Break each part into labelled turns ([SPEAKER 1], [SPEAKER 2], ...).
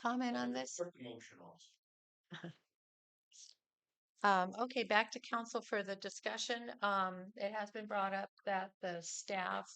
[SPEAKER 1] comment on this?
[SPEAKER 2] Promotional.
[SPEAKER 1] Um, okay, back to council for the discussion. Um, it has been brought up that the staff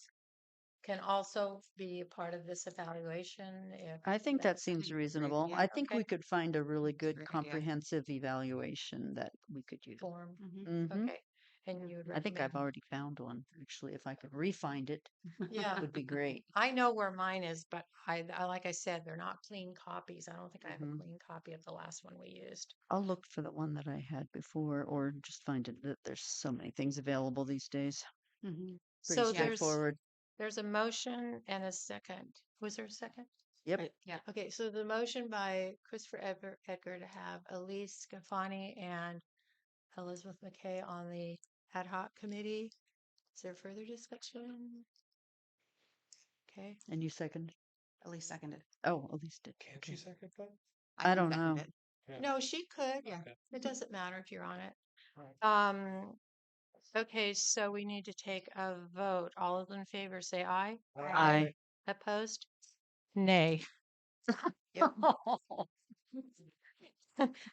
[SPEAKER 1] can also be a part of this evaluation if
[SPEAKER 3] I think that
[SPEAKER 1] That's
[SPEAKER 3] seems
[SPEAKER 4] great,
[SPEAKER 3] reasonable.
[SPEAKER 4] yeah.
[SPEAKER 3] I think
[SPEAKER 1] Okay.
[SPEAKER 3] we could find a really good
[SPEAKER 4] great, yeah.
[SPEAKER 3] comprehensive evaluation that we could use.
[SPEAKER 1] formed.
[SPEAKER 3] Mhm.
[SPEAKER 1] Okay, and you.
[SPEAKER 3] I think I've already found one, actually. If I could re-find it,
[SPEAKER 1] Yeah,
[SPEAKER 3] would be great.
[SPEAKER 1] I know where mine is, but I, I, like I said, they're not clean copies. I don't think I have a
[SPEAKER 3] Mhm.
[SPEAKER 1] clean copy of the last one we used.
[SPEAKER 3] I'll look for the one that I had before or just find it that there's so many things available these days. mm-hmm. Pretty
[SPEAKER 1] So there's,
[SPEAKER 3] straightforward.
[SPEAKER 1] there's a motion and a second. Was there a second?
[SPEAKER 3] Yep.
[SPEAKER 4] Yeah.
[SPEAKER 1] Okay, so the motion by Christopher Edgar, Edgar to have Elise Scafani and Elizabeth McKay on the ad hoc committee. Is there further discussion? Okay,
[SPEAKER 3] And you second?
[SPEAKER 4] At least seconded.
[SPEAKER 3] Oh, Elise did.
[SPEAKER 2] Can't
[SPEAKER 3] okay.
[SPEAKER 2] you second that?
[SPEAKER 3] I
[SPEAKER 4] can
[SPEAKER 3] don't
[SPEAKER 4] second
[SPEAKER 3] know.
[SPEAKER 4] it.
[SPEAKER 1] no, she could.
[SPEAKER 4] Yeah.
[SPEAKER 1] It doesn't matter if you're on it.
[SPEAKER 2] Alright.
[SPEAKER 1] Um, okay, so we need to take a vote. All of them in favor, say aye.
[SPEAKER 3] I,
[SPEAKER 1] Opposed? Nay.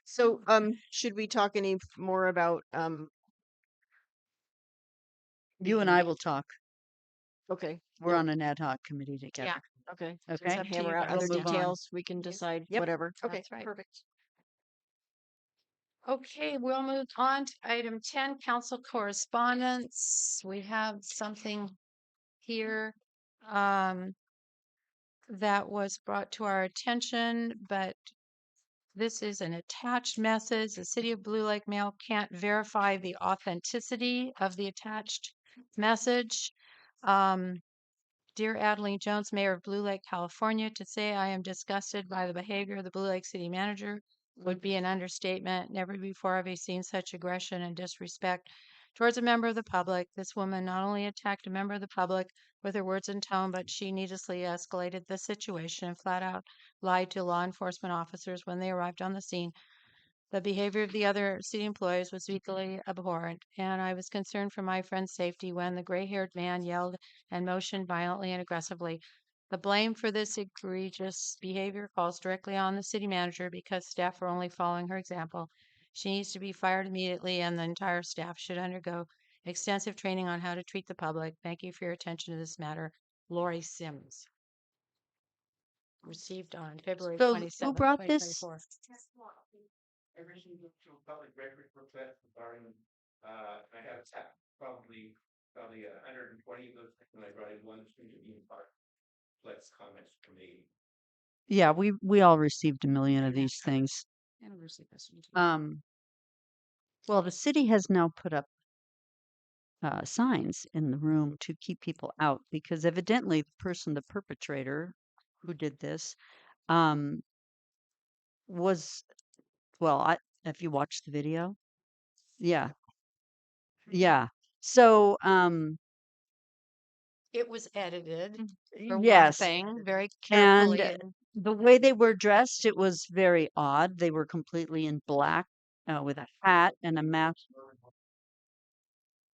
[SPEAKER 5] So, um, should we talk any f- more about, um,
[SPEAKER 3] you and I will talk.
[SPEAKER 5] okay,
[SPEAKER 3] We're on an ad hoc committee together.
[SPEAKER 5] okay.
[SPEAKER 3] Okay.
[SPEAKER 1] up to you
[SPEAKER 5] Hammer out
[SPEAKER 1] guys.
[SPEAKER 5] other
[SPEAKER 3] We'll move on.
[SPEAKER 5] details. We can decide
[SPEAKER 3] Yep.
[SPEAKER 5] whatever.
[SPEAKER 1] Okay,
[SPEAKER 5] That's
[SPEAKER 1] right.
[SPEAKER 5] Perfect.
[SPEAKER 1] Okay, we'll move on to item ten, council correspondence. We have something here um that was brought to our attention, but this is an attached message. The City of Blue Lake Mail can't verify the authenticity of the attached message. Um, Dear Adeline Jones, Mayor of Blue Lake, California, to say I am disgusted by the behavior of the Blue Lake City Manager would be an understatement. Never before have I seen such aggression and disrespect towards a member of the public. This woman not only attacked a member of the public with her words and tone, but she needlessly escalated the situation and flat out lied to law enforcement officers when they arrived on the scene. The behavior of the other city employees was equally abhorrent, and I was concerned for my friend's safety when the gray haired man yelled and motioned violently and aggressively. The blame for this egregious behavior falls directly on the city manager because staff are only following her example. She needs to be fired immediately, and the entire staff should undergo extensive training on how to treat the public. Thank you for your attention to this matter. Lori Sims. Received on February
[SPEAKER 3] So who
[SPEAKER 1] 27,
[SPEAKER 3] brought this?
[SPEAKER 1] 2024.
[SPEAKER 2] Everything goes to a public record request regarding, uh, I have tap, probably, probably a hundred and twenty of those, and I brought in one to the Union Park. Let's comments committee.
[SPEAKER 3] Yeah, we, we all received a million of these things.
[SPEAKER 4] Anniversary question. too.
[SPEAKER 3] Um, well, the city has now put up uh, signs in the room to keep people out because evidently the person, the perpetrator who did this, um, was, well, I, if you watched the video, yeah, yeah. So, um,
[SPEAKER 1] It was edited for one
[SPEAKER 3] Mm-hmm. yes,
[SPEAKER 1] thing, very carefully.
[SPEAKER 3] uh,
[SPEAKER 1] and-
[SPEAKER 3] the way they were dressed, it was very odd. They were completely in black uh, with a hat and a mask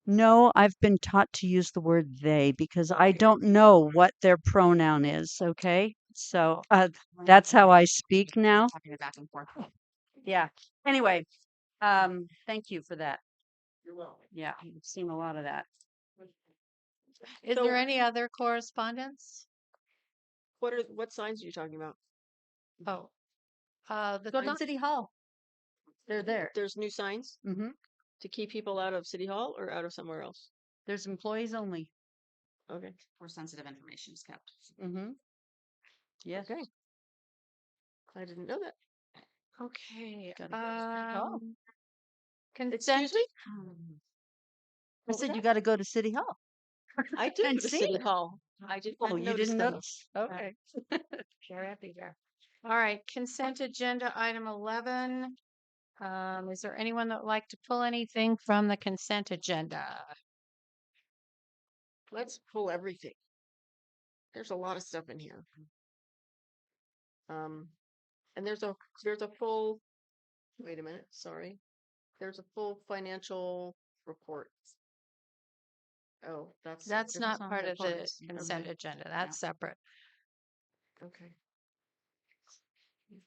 [SPEAKER 3] No, I've been taught to use the word they because I don't know what their pronoun is. Okay. So uh, that's how Oh, I speak now.
[SPEAKER 4] Talking it back and forth.
[SPEAKER 3] Yeah. Anyway, um, thank you for that.
[SPEAKER 2] You're welcome.
[SPEAKER 3] Yeah. I've seen a lot of that.
[SPEAKER 1] Is
[SPEAKER 5] So-
[SPEAKER 1] there any other correspondence?
[SPEAKER 5] What are, what signs are you talking about?
[SPEAKER 1] Oh. Uh, the
[SPEAKER 3] Go
[SPEAKER 1] con-
[SPEAKER 3] to City Hall. They're there.
[SPEAKER 5] There's new signs
[SPEAKER 3] hmm
[SPEAKER 5] to keep people out of City Hall or out of somewhere else?
[SPEAKER 3] There's employees only.
[SPEAKER 5] Okay.
[SPEAKER 4] Where sensitive information is kept.
[SPEAKER 3] Mm-hmm. Yes.
[SPEAKER 5] Okay. I didn't know that.
[SPEAKER 1] Okay,
[SPEAKER 3] Gotta go to Oh. City Hall.
[SPEAKER 1] um. Consent, Hmm,
[SPEAKER 5] Excuse me?
[SPEAKER 3] I
[SPEAKER 5] What was
[SPEAKER 3] said you
[SPEAKER 5] that?
[SPEAKER 3] got to go to City Hall.
[SPEAKER 5] I did go
[SPEAKER 3] hadn't
[SPEAKER 5] to
[SPEAKER 3] seen
[SPEAKER 5] City
[SPEAKER 3] it.
[SPEAKER 5] Hall. I did.
[SPEAKER 3] Oh,
[SPEAKER 5] not
[SPEAKER 3] you didn't notice? Okay.
[SPEAKER 1] Sure, happy there. All right, consent agenda item eleven. Um, is there anyone that would like to pull anything from the consent agenda?
[SPEAKER 5] Let's pull everything. There's a lot of stuff in here.
[SPEAKER 1] Mm-hmm.
[SPEAKER 5] Um, and there's a, there's a full, wait a minute, sorry. There's a full financial Oh, report. Oh, that's.
[SPEAKER 1] That's
[SPEAKER 5] different.
[SPEAKER 1] not part of the
[SPEAKER 4] policy.
[SPEAKER 1] consent agenda, that's separate.
[SPEAKER 5] Okay.